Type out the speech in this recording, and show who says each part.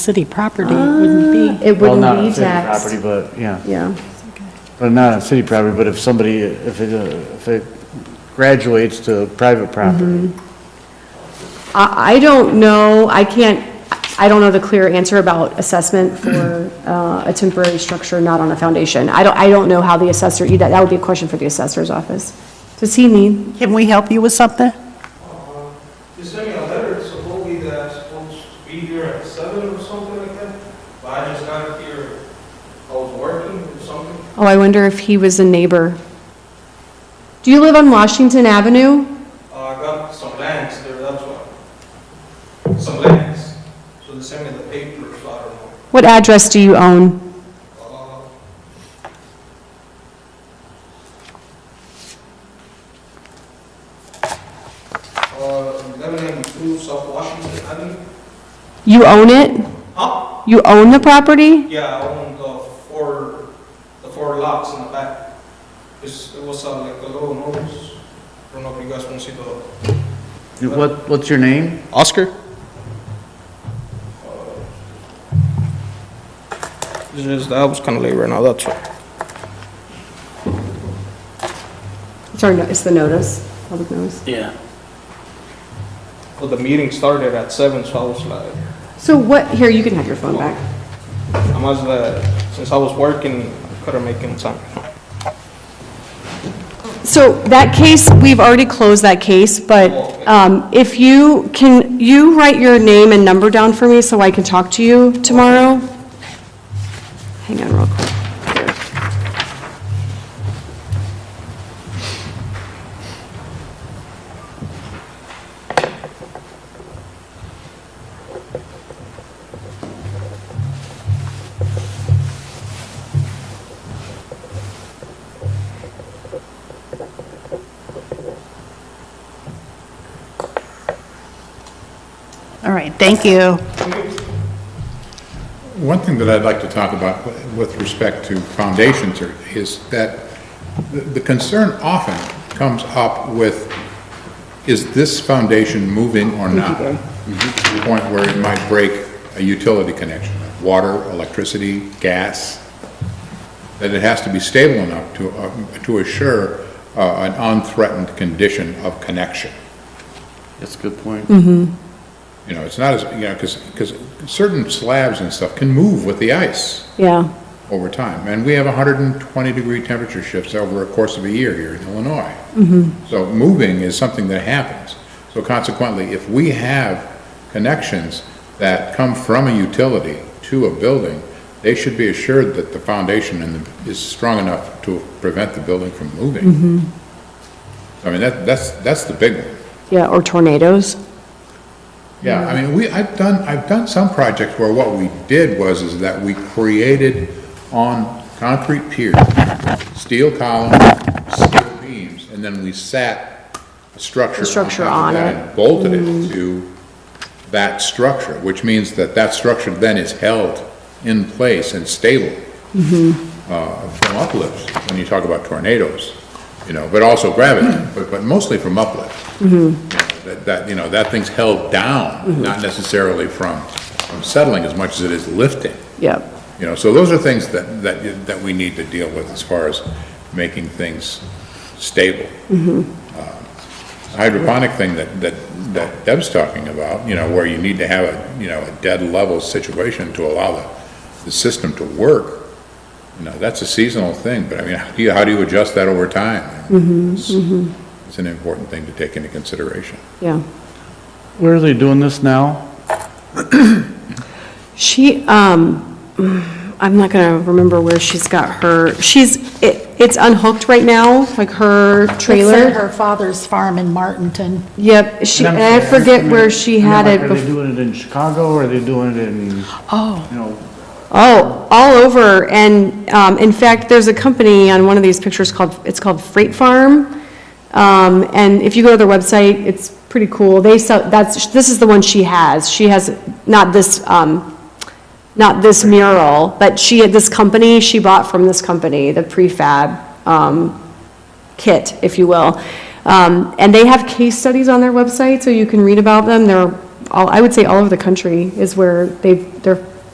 Speaker 1: city property, it wouldn't be.
Speaker 2: It
Speaker 3: Well,
Speaker 2: wouldn't
Speaker 3: not on
Speaker 2: be
Speaker 3: city
Speaker 2: taxed.
Speaker 3: Property, but, yeah,
Speaker 2: Yeah,
Speaker 3: but not on city property, but if somebody, if it, uh, if it graduates to private
Speaker 2: Mm-hmm.
Speaker 3: property.
Speaker 2: I, I don't know, I can't, I don't know the clear answer about assessment for uh, a temporary structure not on a foundation. I don't, I don't know how the assessor, that, that would be a question for the assessor's office. Does he need,
Speaker 1: Ah. Can we help you with something?
Speaker 4: You sent me a letter supposedly that I'm supposed to be here at seven or something like that, but I just got here, I was working or something.
Speaker 2: oh, I wonder if he was a neighbor. Do you live on Washington Avenue?
Speaker 4: Uh, I got some lands there, that's why. Some lands, so they sent me the papers, I don't know.
Speaker 2: What address do you own?
Speaker 4: Uh, Uh, eleven ninety-two South Washington Avenue,
Speaker 2: You own it?
Speaker 4: huh?
Speaker 2: You own the property?
Speaker 4: Yeah, I own the four, the four lots in the back. It's, it was uh, like a little nose. I don't know if you guys want to see the,
Speaker 3: What, what's your name?
Speaker 5: Oscar?
Speaker 4: this is, that was kind of late right now, that's all.
Speaker 2: Sorry, no, it's the notice, public notice.
Speaker 5: Yeah.
Speaker 4: Well, the meeting started at seven, so I was like,
Speaker 2: So what, here, you can have your phone back.
Speaker 4: I must, uh, since I was working, I couldn't make any time.
Speaker 2: So that case, we've already closed that case, but
Speaker 4: Oh, okay.
Speaker 2: um, if you, can you write your name and number down for me so I can talk to you tomorrow? Hang on real quick. Here.
Speaker 1: All right, thank you.
Speaker 6: One thing that I'd like to talk about with respect to foundations are- is that the- the concern often comes up with, is this foundation moving or not? Mm-hmm. To the point where it might break a utility connection, water, electricity, gas, that it has to be stable enough to, uh, to assure uh, an unthreatened condition of connection.
Speaker 3: That's a good point.
Speaker 6: You know, it's not as, you know, because, because certain slabs and stuff can move with the ice.
Speaker 2: Yeah,
Speaker 6: over time. And we have 120-degree temperature shifts over a course of a year here in Illinois. So moving is something that happens. So consequently, if we have connections that come from a utility to a building, they should be assured that the foundation in the- is strong enough to prevent the building from moving. I mean, that- that's, that's the big one.
Speaker 2: yeah, or tornadoes.
Speaker 6: Yeah, I mean, we, I've done, I've done some projects where what we did was is that we created on concrete piers, steel columns, steel beams, and then we sat a structure.
Speaker 2: The structure
Speaker 6: top of
Speaker 2: on
Speaker 6: that
Speaker 2: it. Mm-hmm.
Speaker 6: and Bolted it to that structure, which means that that structure then is held in place and stable
Speaker 2: Mm-hmm.
Speaker 6: uh, from uplifts, when you talk about tornadoes, you know, but also gravity, but, but mostly from uplift. That, that, you know, that thing's held down, not necessarily from, from settling as much as it is lifting,
Speaker 2: Yep.
Speaker 6: you know, so those are things that, that, you- that we need to deal with as far as making things stable. Uh, Hydroponic thing that, that, that Deb's talking about, you know, where you need to have a, you know, a dead level situation to allow the, the system to work, you know, that's a seasonal thing, but I mean, how do you, how do you adjust that over time? It's- It's an important thing to take into consideration.
Speaker 2: Yeah.
Speaker 3: Where are they doing this now?
Speaker 2: She, um, I'm not gonna remember where she's got her, she's, it, it's unhooked right now, like her
Speaker 1: It's at
Speaker 2: trailer.
Speaker 1: her father's farm in Martinton.
Speaker 2: Yep, she,
Speaker 3: I'm
Speaker 2: and I
Speaker 3: saying,
Speaker 2: forget
Speaker 3: mean,
Speaker 2: where she
Speaker 3: I mean,
Speaker 2: had
Speaker 3: like,
Speaker 2: it
Speaker 3: Are they
Speaker 2: before.
Speaker 3: doing it in Chicago, or are they doing it in, you
Speaker 1: Oh,
Speaker 3: know,
Speaker 2: Oh, all over, and, um, in fact, there's a company on one of these pictures called, it's called Freight Farm. Um, and if you go to their website, it's pretty cool, they sell, that's, this is the one she has, she has, not this, um, not this mural, but she had this company, she bought from this company, the prefab, um, kit, if you will. Um, and they have case studies on their website, so you can read about them, they're all, I would say all over the country is where they, their